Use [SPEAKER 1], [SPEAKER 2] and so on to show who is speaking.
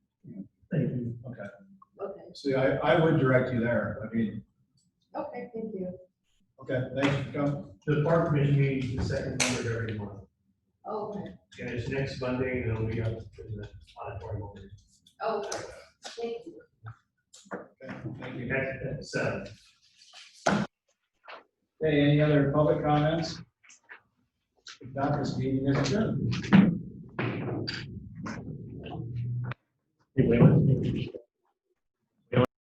[SPEAKER 1] See, I, I would direct you there. I mean,
[SPEAKER 2] Okay, thank you.
[SPEAKER 1] okay, thanks for coming.
[SPEAKER 3] The park commission meeting is the second Monday of every month,
[SPEAKER 2] Okay,
[SPEAKER 3] and it's next Monday, and then we have the auditorium over.
[SPEAKER 2] okay, thank you.
[SPEAKER 1] Okay, Thank you.
[SPEAKER 3] That's, that's, uh,
[SPEAKER 1] Okay, any other public comments? If not, this meeting is adjourned.
[SPEAKER 3] anyway,